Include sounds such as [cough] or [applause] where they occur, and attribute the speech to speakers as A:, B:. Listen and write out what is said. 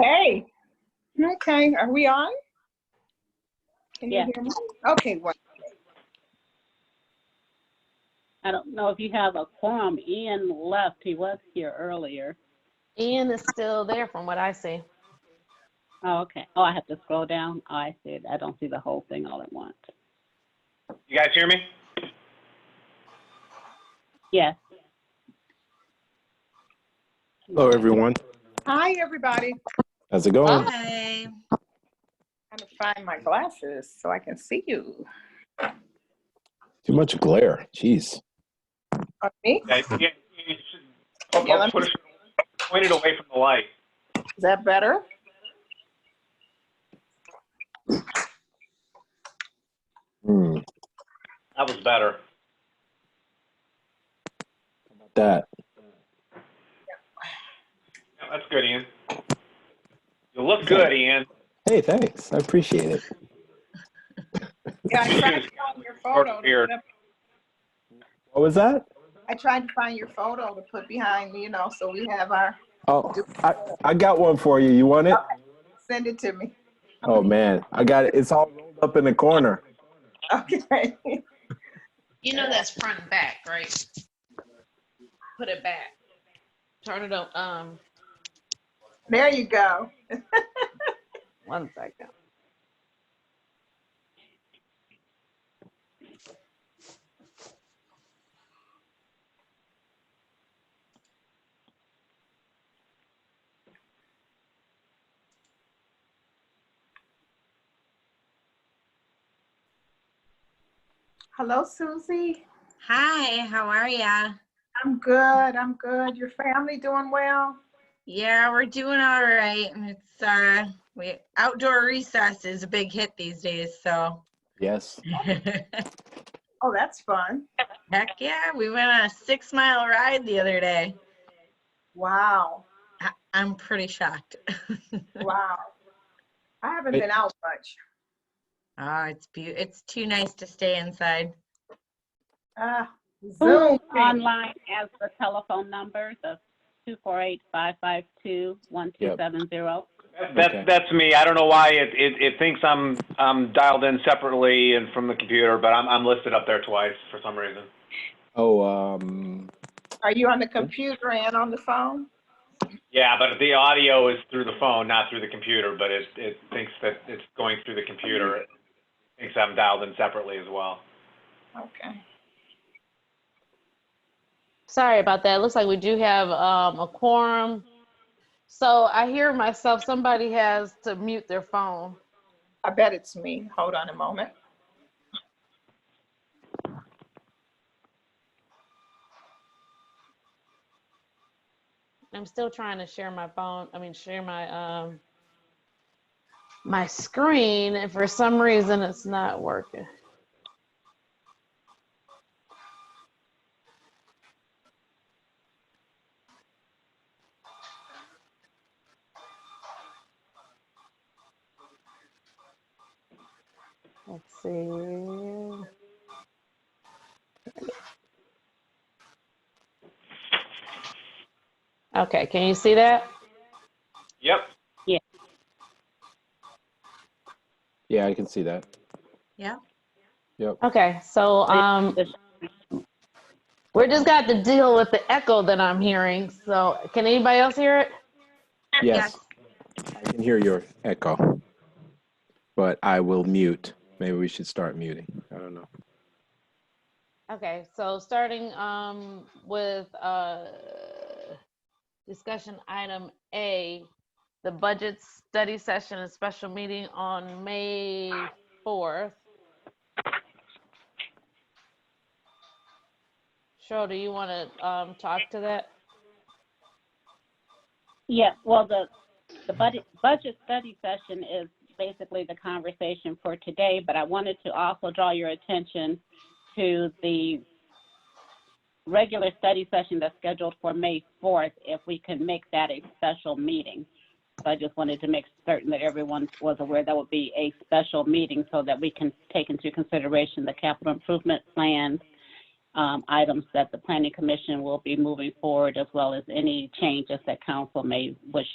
A: Hey, okay, are we on? Can you
B: Yeah.
A: hear me? Okay, well,
B: I don't know if you have a quorum. Ian left. He was here earlier.
C: Ian is still there from what I see.
B: Oh, okay. Oh, I have to scroll down. Oh, I see it. I don't see the whole thing all at once.
D: You guys hear me?
B: Yes.
E: Hello, everyone.
A: hi, everybody.
E: How's it going?
F: Hi.
A: Trying to find my glasses so I can see you.
E: Too much glare. Jeez.
A: Oh, Me?
D: Yeah, yeah, you should- I'll-
A: Yeah,
D: I'll
A: let me-
D: put it- Point it away from the light.
A: Is that better?
E: Hmm.
D: That was better.
E: That.
D: Yeah, That's good, Ian. You look good, Ian.
E: Hey, thanks. I appreciate it.
A: Yeah, I tried to find your photo. to
D: Disappeared.
A: put up-
E: What was that?
A: I tried to find your photo to put behind me, you know, so we have our,
E: Oh, I, I got one for you. You want it?
A: send it to me. [laughs]
E: Oh man, I got it. It's all rolled up in the corner.
A: Okay.
F: You know that's front and back, right? Put it back.
C: Turn it up. Um,
A: There you go.
C: [laughs] one second.
A: Hello, Susie.
F: Hi, how are ya?
A: I'm good, I'm good. Your family doing well?
F: Yeah, we're doing all right. and It's uh, we outdoor recess is a big hit these days, so [laughs]
E: Yes.
F: heck
A: Oh, that's fun.
F: yeah, we went on a six mile ride the other day.
A: Wow,
F: I- I'm pretty shocked. [laughs]
A: wow. I haven't
E: Hey.
A: been out much.
F: Oh, it's beau, it's too nice to stay inside.
A: Ah, Zoom.
B: Who's online as the telephone number, the 248-552-1270?
D: That- That's,
E: Okay.
D: that's me. I don't know why it, it, it thinks I'm, I'm dialed in separately and from the computer, but I'm, I'm listed up there twice for some reason.
E: Oh, um,
A: Are you on the computer and on the phone?
D: Yeah, but the audio is through the phone, not through the computer, but it, it thinks that it's going through the computer. It thinks I'm dialed in separately as well.
A: Okay.
C: Sorry about that. Looks like we do have um, a quorum. So I hear myself, somebody has to mute their phone.
A: I bet it's me. Hold on a moment.
C: I'm still trying to share my phone, I mean, share my, um, my screen, and for some reason, it's not working. Let's see. Okay, can you see that?
D: Yep.
E: yeah, I can see that.
F: Yeah.
E: Yep.
C: Okay, so, um, we're just got to deal with the echo that I'm hearing, so can anybody else hear it?
E: Yes. I can hear your echo, but I will mute. Maybe we should start muting. I don't know.
C: Okay, so starting um with uh discussion item A, the budget study session and special meeting on May fourth. Cheryl, do you want to um talk to that?
B: Yeah, well, the, the budget, budget study session is basically the conversation for today, but I wanted to also draw your attention to the regular study session that's scheduled for May 4th, if we can make that a special meeting. So I just wanted to make certain that everyone was aware that would be a special meeting so that we can take into consideration the capital improvement plan, um, items that the planning commission will be moving forward, as well as any changes that council may wish